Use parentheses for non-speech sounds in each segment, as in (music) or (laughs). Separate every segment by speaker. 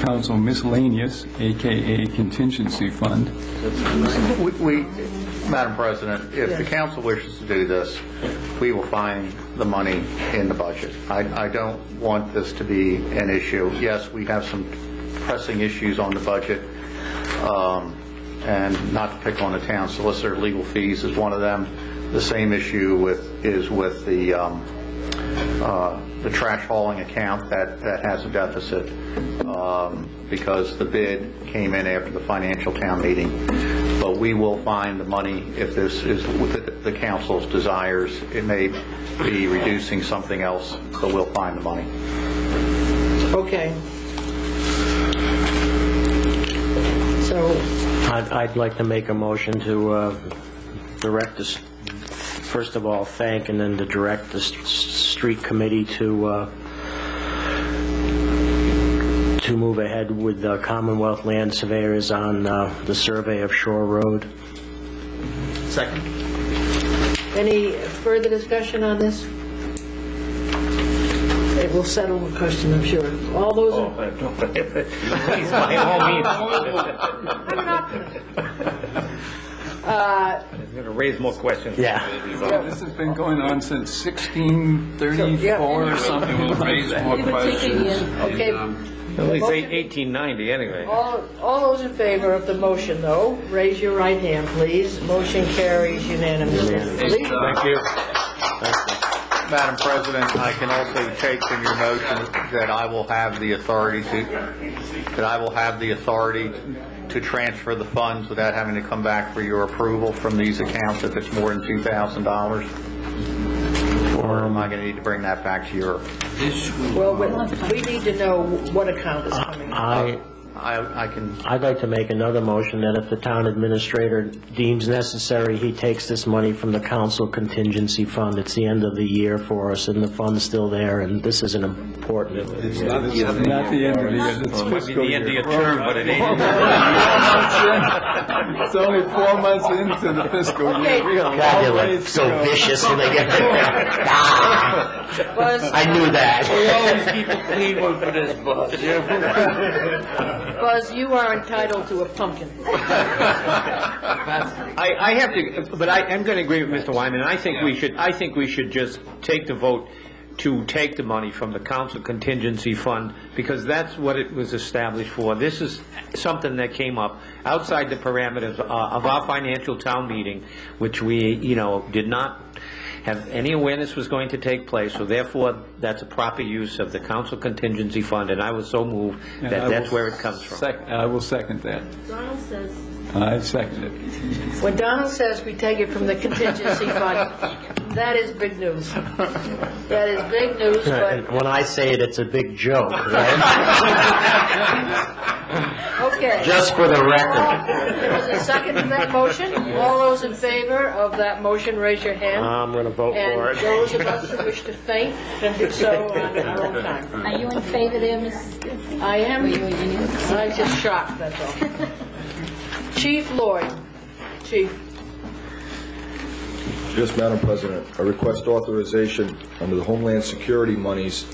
Speaker 1: council miscellaneous, AKA contingency fund.
Speaker 2: We, we- Madam President, if the council wishes to do this, we will find the money in the budget. I, I don't want this to be an issue. Yes, we have some pressing issues on the budget, um, and not to pick on the town solicitor, legal fees is one of them. The same issue with, is with the, um, uh, the trash hauling account that, that has a deficit um, because the bid came in after the financial town meeting. But we will find the money if this is the- the council's desires. It may be reducing something else, but we'll find the money.
Speaker 3: Okay. So,
Speaker 4: I'd, I'd like to make a motion to uh, direct this, first of all, thank and then to direct the s- s- street committee to, uh, to move ahead with the Commonwealth Land Surveyors on uh, the survey of Shore Road.
Speaker 3: any further discussion on this? It will settle the question, I'm sure. All those, in-
Speaker 5: I'm an optimist.
Speaker 3: uh,
Speaker 6: Raise more questions.
Speaker 4: Yeah.
Speaker 1: This has been going on since 1634 or something.
Speaker 7: We'll raise more
Speaker 5: We've been taking
Speaker 7: questions.
Speaker 5: in-
Speaker 7: and,
Speaker 3: okay.
Speaker 7: um,
Speaker 6: At least eight- 1890, anyway.
Speaker 3: all, all those in favor of the motion, though, raise your right hand, please. Motion carries unanimously.
Speaker 7: it's, uh,
Speaker 6: you.
Speaker 2: Madam President, I can also take from your motion that I will have the authority to, that I will have the authority to transfer the funds without having to come back for your approval from these accounts if it's more than $2,000? Or am I going to need to bring that back to your,
Speaker 7: this will-
Speaker 3: Well, we- we need to know what account is coming.
Speaker 4: I,
Speaker 2: uh, I, I can,
Speaker 4: I'd like to make another motion that if the town administrator deems necessary, he takes this money from the council contingency fund. It's the end of the year for us, and the fund's still there, and this is an important...
Speaker 7: It's not the end of the
Speaker 1: Not the
Speaker 7: year.
Speaker 1: end of the year, it's
Speaker 6: Might be
Speaker 1: fiscal
Speaker 6: the end of
Speaker 1: year.
Speaker 6: your term, but (laughs) it ain't.
Speaker 1: It's only four months into the fiscal year. We are
Speaker 4: God, they
Speaker 1: already
Speaker 4: look so
Speaker 1: through.
Speaker 4: vicious when they get (laughs) there. Ah,
Speaker 3: Buzz,
Speaker 4: I knew that.
Speaker 6: (laughs)
Speaker 3: Buzz, you are entitled to a pumpkin.
Speaker 6: I, I have to, but I, I'm going to agree with Mr. Wyman. I think we should, I think we should just take the vote to take the money from the council contingency fund, because that's what it was established for. This is something that came up outside the parameters uh, of our financial town meeting, which we, you know, did not have any awareness was going to take place, so therefore, that's a proper use of the council contingency fund, and I was so moved
Speaker 1: And I
Speaker 6: that
Speaker 1: will
Speaker 6: that's where it comes from.
Speaker 1: sec- I will second that.
Speaker 5: Donald says,
Speaker 1: I second it.
Speaker 3: When Donald says we take it from the contingency fund, that is big news. That is big news,
Speaker 4: And
Speaker 3: but,
Speaker 4: When I say it, it's a big joke, right?
Speaker 3: okay.
Speaker 4: Just for the record.
Speaker 3: There's a second to that motion. All those in favor of that motion, raise your hand.
Speaker 4: I'm going to vote Uh, for
Speaker 3: And
Speaker 4: it.
Speaker 3: those of us who wish to faint, can do so on our own time.
Speaker 5: are you in favor there, Mrs.? Dixon?
Speaker 3: I
Speaker 5: Are
Speaker 3: am,
Speaker 5: you in?
Speaker 3: I'm just shocked, that's all. Chief Lloyd, chief.
Speaker 8: Yes, Madam President, I request authorization under the Homeland Security monies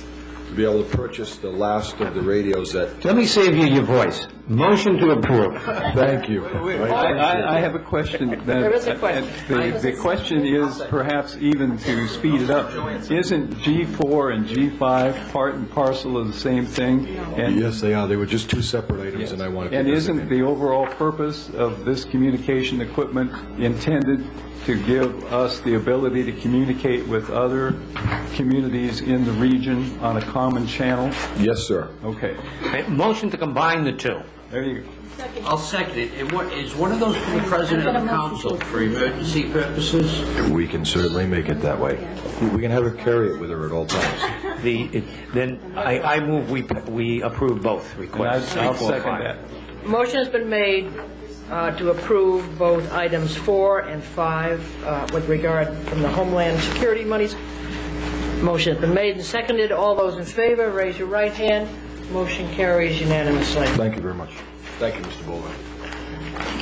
Speaker 8: to be able to purchase the last of the radios that,
Speaker 6: Let me save you your voice. Motion to approve.
Speaker 8: thank you.
Speaker 1: I, I- I have a question. that-
Speaker 3: There is a question.
Speaker 1: The, the question is perhaps even to speed it up. Isn't G4 and G5 part and parcel of the same thing? And-
Speaker 8: Yes, they are, they were just two separate items, and I wanted to...
Speaker 1: And isn't
Speaker 8: designate.
Speaker 1: the overall purpose of this communication equipment intended to give us the ability to communicate with other communities in the region on a common channel?
Speaker 8: Yes, sir.
Speaker 1: Okay,
Speaker 6: Motion to combine the two.
Speaker 1: there you go.
Speaker 7: I'll second it. And what, is one of those from the president of the council for emergency purposes?
Speaker 8: We can certainly make it that way. We can have her carry it with her at all times.
Speaker 6: The, then I, I move we, we approve both
Speaker 1: And I-
Speaker 6: requests.
Speaker 1: I'll second that.
Speaker 3: Motion has been made uh, to approve both items four and five uh, with regard from the Homeland Security monies. Motion has been made and seconded. All those in favor, raise your right hand. Motion carries unanimously.
Speaker 8: Thank you very much. Thank you, Mr. Bowler.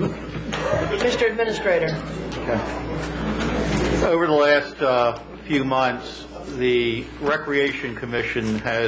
Speaker 3: Mr. Administrator.
Speaker 2: over the last uh, few months, the Recreation Commission has